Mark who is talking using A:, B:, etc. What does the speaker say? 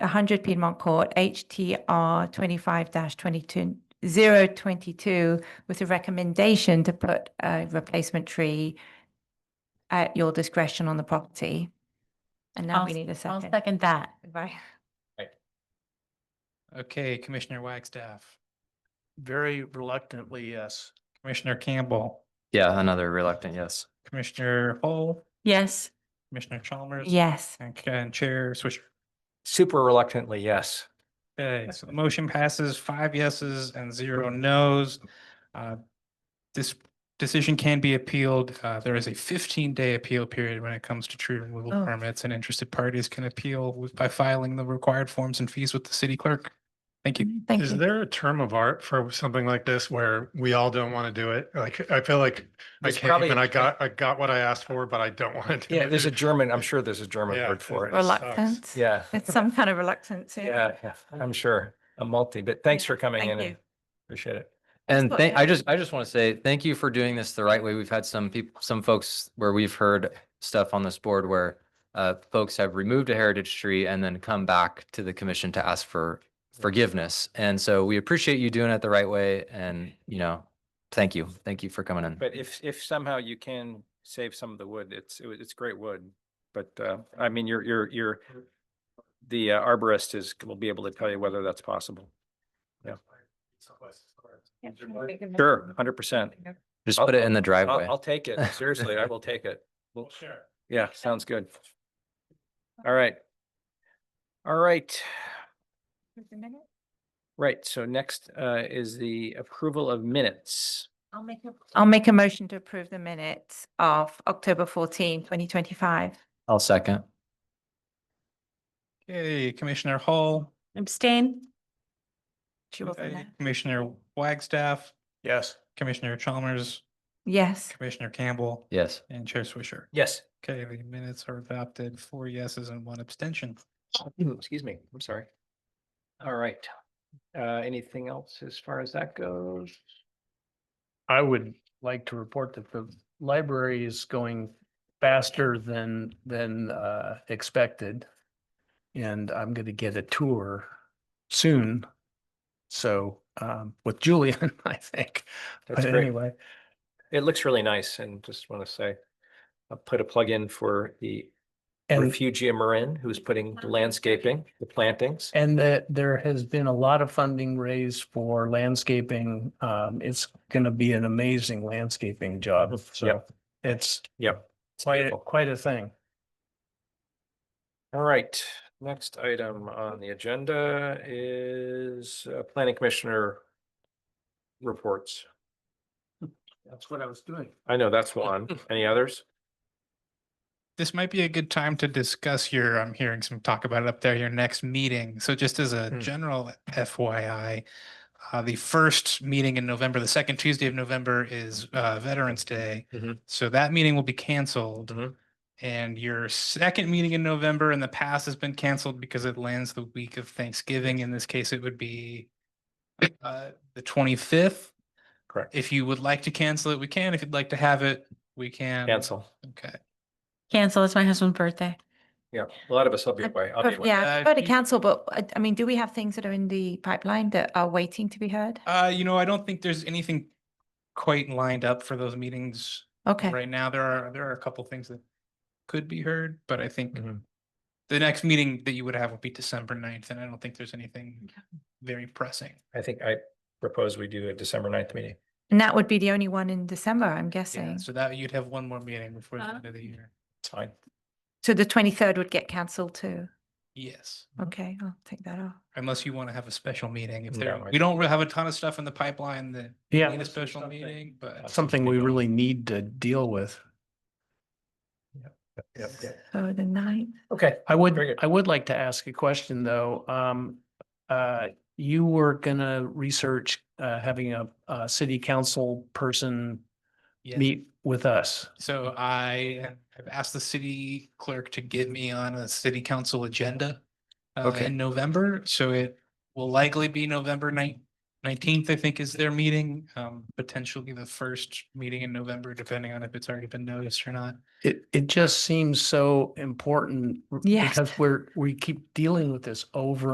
A: 100 Piedmont Court, HTR 25-022, with a recommendation to put a replacement tree at your discretion on the property. And now
B: I'll
A: we
B: s-
A: need a
B: I'll
A: second.
B: second that.
A: Right.
C: Okay, Commissioner Wagstaff,
D: Very reluctantly, yes.
C: Commissioner Campbell,
E: Yeah, another reluctant yes.
C: Commissioner Hall,
B: Yes,
C: Commissioner Chalmers.
A: Yes.
C: And Ca- and Chair Swisher.
E: Super reluctantly yes.
C: Okay, so the motion passes five yeses and zero nos. Uh, This decision can be appealed. Uh, There is a fifteen day appeal period when it comes to tree removal
A: Oh.
C: permits and interested parties can appeal with- by filing the required forms and fees with the city clerk. Thank you.
A: Thank
F: Is
A: you.
F: there a term of art for something like this where we all don't want to do it? Like, I feel like I
E: There's
F: came
E: probably
F: and
E: a-
F: I got, I got what I asked for, but I don't want to do it.
E: Yeah, there's a German, I'm sure there's a German
F: Yeah,
E: word for
F: it
E: it.
F: sucks.
A: Reluctance.
E: Yeah,
A: It's some kind of reluctance.
E: yeah, yeah, I'm sure. A multi, but thanks for coming
A: Thank
E: in and
A: you.
E: appreciate it. And
A: what
E: thank, I just, I just want to say, thank you for doing this the right way. We've had some people, some folks where we've heard stuff on this board where uh, folks have removed a heritage tree and then come back to the commission to ask for forgiveness. And so we appreciate you doing it the right way and, you know, thank you. Thank you for coming in.
G: But if, if somehow you can save some of the wood, it's, it wa- it's great wood. But, uh, I mean, your, your, your, the uh, arborist is, will be able to tell you whether that's possible. Sure, hundred percent.
E: Just put it in the
G: I'll,
E: driveway.
G: I'll take it. Seriously, I will take it. Well,
F: Sure.
G: Yeah, sounds good. All right. All right, right. So next, uh, is the approval of minutes.
B: I'll make a.
A: I'll make a motion to approve the minutes of October 14, 2025.
E: I'll second.
C: Okay, Commissioner Hall,
B: Abstain?
A: She wasn't
C: okay,
A: there.
C: Commissioner Wagstaff,
F: Yes.
C: Commissioner Chalmers,
A: Yes.
C: Commissioner Campbell,
E: Yes.
C: and Chair Swisher.
G: Yes.
C: Okay, the minutes are adopted, four yeses and one abstention.
G: Excuse me, I'm sorry. All right. Uh, anything else as far as that goes?
D: I would like to report that the library is going faster than, than uh, expected. And I'm going to get a tour soon. So um, with Julian, I think.
G: That's
D: But
G: great.
D: Uh, anyway,
G: It looks really nice and just want to say, I'll put a plug in for the
D: and
G: Refugia Marin, who's putting the landscaping, the plantings.
D: And that there has been a lot of funding raised for landscaping. Um, it's gonna be an amazing landscaping job, so
G: Yep.
D: it's
G: Yep. it's
D: quite, a-
G: beautiful.
D: quite a thing.
G: All right, next item on the agenda is uh, Planning Commissioner reports.
D: That's what I was doing.
G: I know that's one. Any others?
C: this might be a good time to discuss your, I'm hearing some talk about it up there, your next meeting. So just as a
G: Hmm.
C: general FYI, uh, the first meeting in November, the second Tuesday of November is, uh, Veterans Day.
G: Mhm.
C: So that meeting will be canceled.
G: Mhm.
C: And your second meeting in November in the past has been canceled because it lands the week of Thanksgiving. In this case, it would be uh, the twenty-fifth.
G: Correct.
C: If you would like to cancel it, we can. If you'd like to have it, we can.
G: Cancel.
C: Okay.
B: Cancel, it's my husband's birthday.
G: Yeah, a lot of us will be away. I'll be away.
A: Yeah, I
C: Uh,
A: prefer to
C: you-
A: cancel, but I, I mean, do we have things that are in the pipeline that are waiting to be heard?
C: Uh, you know, I don't think there's anything quite lined up for those meetings
A: Okay,
C: right now. There are, there are a couple things that could be heard, but I think
G: Mhm.
C: the next meeting that you would have would be December 9th, and I don't think there's anything very pressing.
G: I think I propose we do a December 9th meeting.
A: and that would be the only one in December, I'm guessing.
C: So that you'd have one more meeting before the end of the year.
G: It's fine.
A: So the twenty-third would get cancelled too.
C: Yes,
A: Okay, I'll take that off.
C: unless you want to have a special meeting. If
G: No,
C: there,
G: I
C: we don't really have a ton of stuff in the pipeline that
D: Yeah.
C: need a
D: this is
C: special
D: something-
C: meeting, but
D: Something we really need to deal with.
G: Yep, yep.
A: So the ninth,
G: Okay.
D: I
G: Very
D: would,
G: good.
D: I would like to ask a question, though. Um, uh, you were gonna research, uh, having a, a city council person
C: yes.
D: meet with us.
C: So I have asked the city clerk to get me on a city council agenda. uh,
E: Okay.
C: In November, so it will likely be November ninth, nineteenth, I think, is their meeting, um, potentially the first meeting in November, depending on if it's already been noticed or not.
D: It, it just seems so important r-
A: Yes.
D: because we're, we keep dealing with this over